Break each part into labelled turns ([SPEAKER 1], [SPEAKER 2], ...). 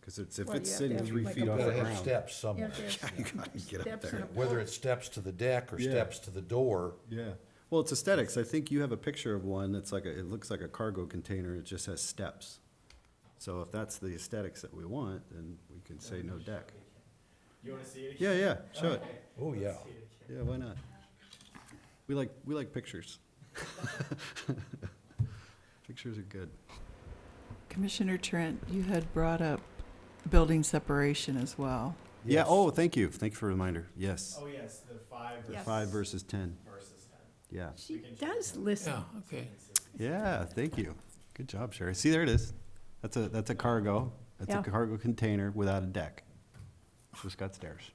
[SPEAKER 1] Because it's, if
[SPEAKER 2] Well,
[SPEAKER 1] it's
[SPEAKER 2] you have
[SPEAKER 1] sitting
[SPEAKER 2] to have
[SPEAKER 1] three
[SPEAKER 2] like a
[SPEAKER 1] feet off
[SPEAKER 2] Gotta
[SPEAKER 1] the
[SPEAKER 2] have
[SPEAKER 3] Gotta have
[SPEAKER 1] ground.
[SPEAKER 3] steps
[SPEAKER 2] You
[SPEAKER 3] somewhere,
[SPEAKER 2] have to have
[SPEAKER 1] You gotta get up
[SPEAKER 2] steps
[SPEAKER 1] there.
[SPEAKER 2] and a
[SPEAKER 3] whether
[SPEAKER 2] pole.
[SPEAKER 3] it's steps to the deck or
[SPEAKER 1] Yeah.
[SPEAKER 3] steps to the door.
[SPEAKER 1] Yeah, well, it's aesthetics. I think you have a picture of one that's like, a it looks like a cargo container, it just has steps. So if that's the aesthetics that we want, then we can say no deck.
[SPEAKER 4] You wanna see it?
[SPEAKER 1] Yeah, yeah, show it.
[SPEAKER 3] Oh, yeah.
[SPEAKER 1] Yeah, why not? We like, we like pictures. Pictures are good.
[SPEAKER 5] Commissioner Trent, you had brought up building separation as well.
[SPEAKER 1] Yeah,
[SPEAKER 3] Yes.
[SPEAKER 1] oh, thank you, thank you for the reminder, yes.
[SPEAKER 4] Oh, yes, the five
[SPEAKER 2] Yeah.
[SPEAKER 1] Five versus ten,
[SPEAKER 4] versus ten.
[SPEAKER 1] yeah.
[SPEAKER 2] She does listen.
[SPEAKER 6] Yeah, okay.
[SPEAKER 1] Yeah, thank you. Good job, Sherry. See, there it is. That's a, that's a cargo, that's a
[SPEAKER 2] Yeah.
[SPEAKER 1] cargo container without a deck. Just got stairs.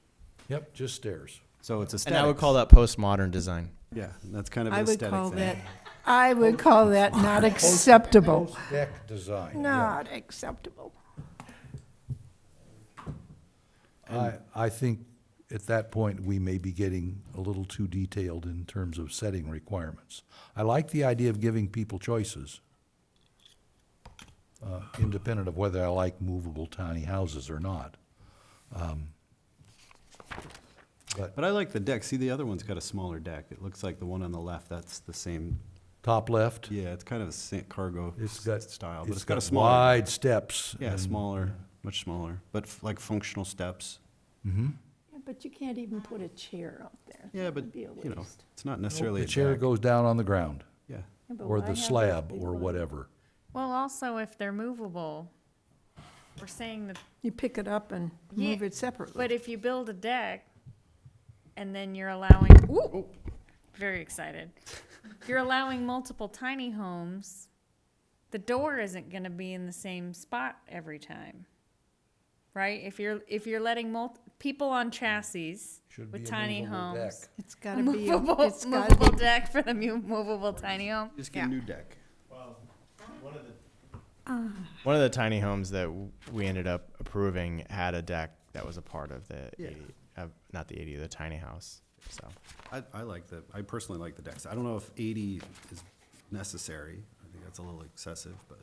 [SPEAKER 3] Yep, just stairs.
[SPEAKER 1] So it's
[SPEAKER 4] And I would
[SPEAKER 1] aesthetics.
[SPEAKER 4] call that postmodern design.
[SPEAKER 1] Yeah, that's kind of
[SPEAKER 2] I
[SPEAKER 1] an
[SPEAKER 2] would
[SPEAKER 1] aesthetic
[SPEAKER 2] call that,
[SPEAKER 1] thing.
[SPEAKER 2] I would call that not acceptable.
[SPEAKER 3] Deck design. yeah.
[SPEAKER 2] Not acceptable.
[SPEAKER 3] I, I think at that point, we may be getting a little too detailed in terms of setting requirements. I like the idea of giving people choices, uh, independent of whether I like movable tiny houses or not. Um,
[SPEAKER 1] But I like the deck. See, the other one's got a smaller deck. It looks like the one on the left, that's the same.
[SPEAKER 3] Top left,
[SPEAKER 1] Yeah, it's kind of a sa- cargo
[SPEAKER 3] it's got,
[SPEAKER 1] style, but
[SPEAKER 3] it's
[SPEAKER 1] it's got a
[SPEAKER 3] got
[SPEAKER 1] smaller.
[SPEAKER 3] wide steps.
[SPEAKER 1] Yeah,
[SPEAKER 3] and-
[SPEAKER 1] smaller, much smaller, but f- like functional steps.
[SPEAKER 2] Yeah, But you can't even put a chair up there.
[SPEAKER 1] Yeah,
[SPEAKER 2] That
[SPEAKER 1] but,
[SPEAKER 2] would be a
[SPEAKER 1] you know,
[SPEAKER 2] waste.
[SPEAKER 1] it's not necessarily a
[SPEAKER 3] The chair
[SPEAKER 1] deck.
[SPEAKER 3] goes down on the ground,
[SPEAKER 1] Yeah,
[SPEAKER 2] Yeah, but
[SPEAKER 3] or
[SPEAKER 2] why
[SPEAKER 3] the
[SPEAKER 2] have a
[SPEAKER 3] slab,
[SPEAKER 2] big
[SPEAKER 3] or
[SPEAKER 2] one?
[SPEAKER 3] whatever.
[SPEAKER 7] Well, also, if they're movable, we're saying that,
[SPEAKER 2] You pick it up and
[SPEAKER 7] Yeah,
[SPEAKER 2] move it separately.
[SPEAKER 7] but if you build a deck and then you're allowing, ooh,
[SPEAKER 2] Oh.
[SPEAKER 7] very excited. You're allowing multiple tiny homes, the door isn't gonna be in the same spot every time. Right? If you're, if you're letting mul, people on chassis
[SPEAKER 3] Should be
[SPEAKER 7] with
[SPEAKER 3] a
[SPEAKER 7] tiny
[SPEAKER 3] movable deck.
[SPEAKER 7] homes.
[SPEAKER 2] It's
[SPEAKER 7] A
[SPEAKER 2] gotta be, a-
[SPEAKER 7] movable,
[SPEAKER 2] it's gotta
[SPEAKER 7] movable
[SPEAKER 2] be,
[SPEAKER 7] deck for the mu- movable tiny home.
[SPEAKER 1] just
[SPEAKER 7] Yeah.
[SPEAKER 1] get a new deck.
[SPEAKER 4] Well, one of the. One of the tiny homes that w- we ended up approving had a deck that was a part of the
[SPEAKER 1] Yeah.
[SPEAKER 4] eighty, uh, not the eighty, the tiny house, so.
[SPEAKER 1] I, I like the, I personally like the decks. I don't know if eighty is necessary. I think that's a little excessive, but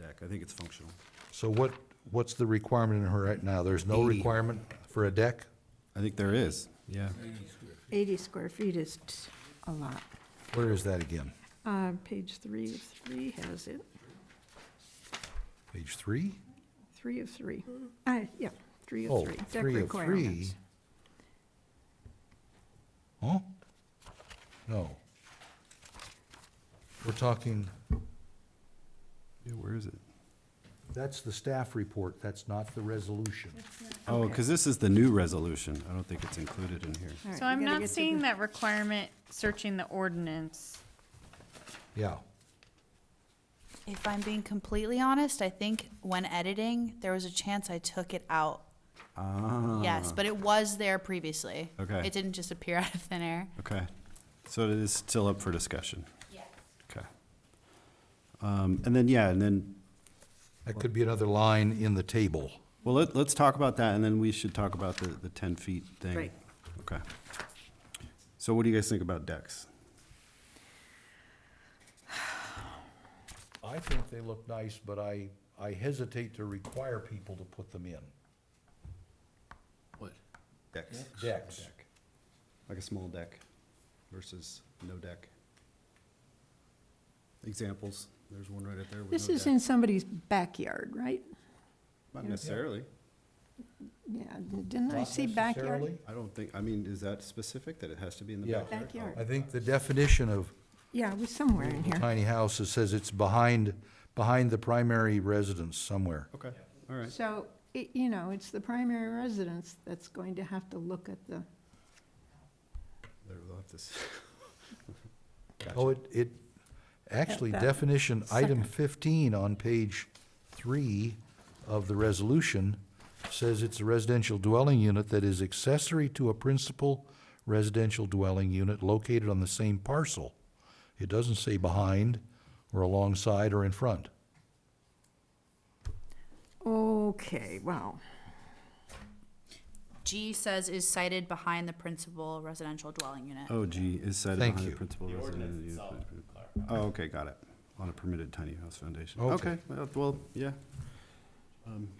[SPEAKER 1] deck, I think it's functional.
[SPEAKER 3] So what, what's the requirement in her right now? There's no
[SPEAKER 1] Eighty.
[SPEAKER 3] requirement for a deck?
[SPEAKER 1] I think there is, yeah.
[SPEAKER 2] eighty square feet is t- a lot.
[SPEAKER 3] Where is that again?
[SPEAKER 2] Uh, page three of three has it,
[SPEAKER 3] Page three?
[SPEAKER 2] three of three.
[SPEAKER 7] Mm-hmm.
[SPEAKER 2] Uh, yeah, three
[SPEAKER 3] Oh,
[SPEAKER 2] of three. Deck
[SPEAKER 3] three of
[SPEAKER 2] requirements.
[SPEAKER 3] three. Huh? No. We're talking,
[SPEAKER 1] Yeah, where is it?
[SPEAKER 3] that's the staff report, that's not the resolution.
[SPEAKER 1] Oh, because this is the new resolution. I don't think it's included in here.
[SPEAKER 2] All right,
[SPEAKER 7] So
[SPEAKER 2] we
[SPEAKER 7] I'm
[SPEAKER 2] gotta
[SPEAKER 7] not
[SPEAKER 2] get to
[SPEAKER 7] seeing
[SPEAKER 2] the-
[SPEAKER 7] that requirement searching the ordinance.
[SPEAKER 3] Yeah,
[SPEAKER 8] If I'm being completely honest, I think when editing, there was a chance I took it out.
[SPEAKER 1] Ah.
[SPEAKER 8] Yes, but it was there previously.
[SPEAKER 1] Okay.
[SPEAKER 8] It didn't just appear out of thin air.
[SPEAKER 1] Okay, so it is still up for discussion.
[SPEAKER 8] Yes.
[SPEAKER 1] Okay. Um, and then, yeah, and then,
[SPEAKER 3] that could be another line in the table.
[SPEAKER 1] well, let, let's talk about that, and then we should talk about the, the ten feet thing.
[SPEAKER 2] Right.
[SPEAKER 1] Okay. So what do you guys think about decks?
[SPEAKER 3] I think they look nice, but I, I hesitate to require people to put them in.
[SPEAKER 6] What?
[SPEAKER 1] Decks.
[SPEAKER 3] Decks.
[SPEAKER 1] Like a small deck versus no deck. Examples, there's one right up there with
[SPEAKER 2] This
[SPEAKER 1] no
[SPEAKER 2] is
[SPEAKER 1] deck.
[SPEAKER 2] in somebody's backyard, right?
[SPEAKER 1] Not necessarily.
[SPEAKER 2] Yeah, didn't I
[SPEAKER 3] Not
[SPEAKER 2] see backyard?
[SPEAKER 3] necessarily.
[SPEAKER 1] I don't think, I mean, is that specific that it has to be in the
[SPEAKER 3] Yeah.
[SPEAKER 1] backyard?
[SPEAKER 3] I
[SPEAKER 2] Backyard.
[SPEAKER 3] think the definition of
[SPEAKER 2] Yeah, it was somewhere in here.
[SPEAKER 3] tiny house, it says it's behind, behind the primary residence somewhere.
[SPEAKER 1] Okay, all right.
[SPEAKER 2] So, it, you know, it's the primary residence that's going to have to look at the,
[SPEAKER 1] There, we'll have to s-
[SPEAKER 3] Oh, it, it, actually,
[SPEAKER 2] that
[SPEAKER 3] definition, item fifteen on page three of the resolution says it's a residential dwelling unit that is accessory to a principal residential dwelling unit located on the same parcel. It doesn't say behind, or alongside, or in front.
[SPEAKER 2] okay, wow.
[SPEAKER 8] G says is cited behind the principal residential dwelling unit.
[SPEAKER 1] Oh, gee, is cited
[SPEAKER 3] Thank
[SPEAKER 1] behind the
[SPEAKER 3] you.
[SPEAKER 1] principal resident. of the- Oh, okay, got it. On a permitted tiny house foundation.
[SPEAKER 3] Okay.
[SPEAKER 1] Okay, well, well, yeah. Um,